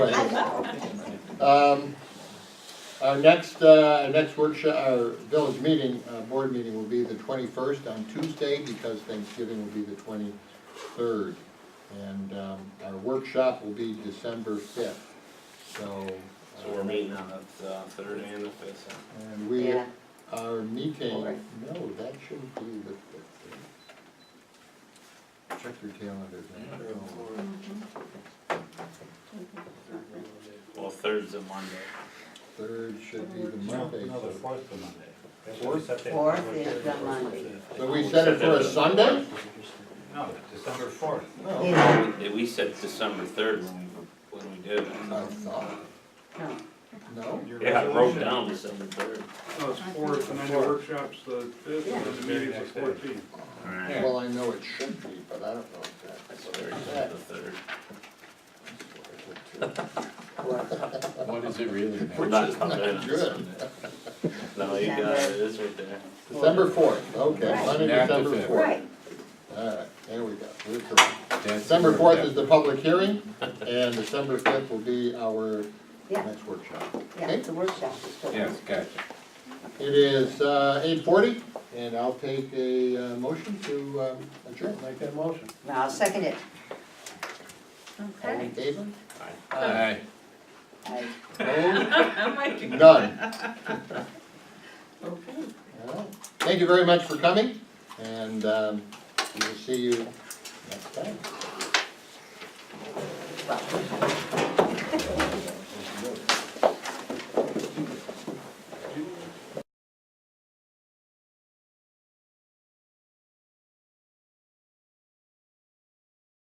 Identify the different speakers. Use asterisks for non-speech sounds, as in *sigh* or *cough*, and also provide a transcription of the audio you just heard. Speaker 1: Um, Our next, uh, our next workshop, our village meeting, uh, board meeting will be the twenty-first on Tuesday because Thanksgiving will be the twenty-third. And um, our workshop will be December fifth, so. uh,
Speaker 2: So we're meeting on the uh, third and the fifth.
Speaker 1: And we
Speaker 3: Yeah.
Speaker 1: are meeting,
Speaker 3: Alright.
Speaker 1: no, that shouldn't be the fifth. eh? Check your calendars. I don't know.
Speaker 2: Well, third's a Monday.
Speaker 1: Third should be the Monday.
Speaker 4: No, the
Speaker 1: so-
Speaker 4: fourth is Monday. That's what we
Speaker 1: Fourth?
Speaker 4: set that
Speaker 3: Fourth
Speaker 4: public
Speaker 3: is
Speaker 4: hearing
Speaker 3: the
Speaker 4: for.
Speaker 3: Monday.
Speaker 1: So we set it for a Sunday?
Speaker 4: No, December fourth.
Speaker 1: No.
Speaker 2: We- We said December third when we, when we did it.
Speaker 1: I thought,
Speaker 3: No,
Speaker 1: no?
Speaker 2: Yeah, it broke down December third.
Speaker 5: No, it's fourth, and then the workshop's the fifth, and then the meeting's the fourteenth.
Speaker 2: Alright.
Speaker 1: Well, I know it should be, but I don't know exactly
Speaker 2: That's
Speaker 1: what
Speaker 2: third,
Speaker 1: it's
Speaker 2: the third.
Speaker 1: at.
Speaker 6: What is it really
Speaker 2: We're
Speaker 6: now?
Speaker 2: not coming in on
Speaker 1: Good.
Speaker 2: Sunday. No, you got it, it is right there.
Speaker 1: December fourth, okay,
Speaker 3: Right.
Speaker 1: Monday,
Speaker 6: Not the
Speaker 1: December
Speaker 6: fifth.
Speaker 1: fourth.
Speaker 3: right,
Speaker 1: Alright, there we go, we're correct.
Speaker 6: That's-
Speaker 1: December fourth is the public hearing, and December fifth will be our
Speaker 3: yeah,
Speaker 1: next workshop.
Speaker 3: yeah, it's a workshop. it's still-
Speaker 6: Yes, gotcha.
Speaker 1: It is, uh, eight forty, and I'll take a, uh, motion to, um, adjourn. Make that motion.
Speaker 3: Now, I'll second it.
Speaker 1: All in favor?
Speaker 6: Aye.
Speaker 3: I-
Speaker 1: Opposed? None. *laughs*
Speaker 3: Okay.
Speaker 1: All right. Thank you very much for coming, and um, we will see you next time.
Speaker 3: Well,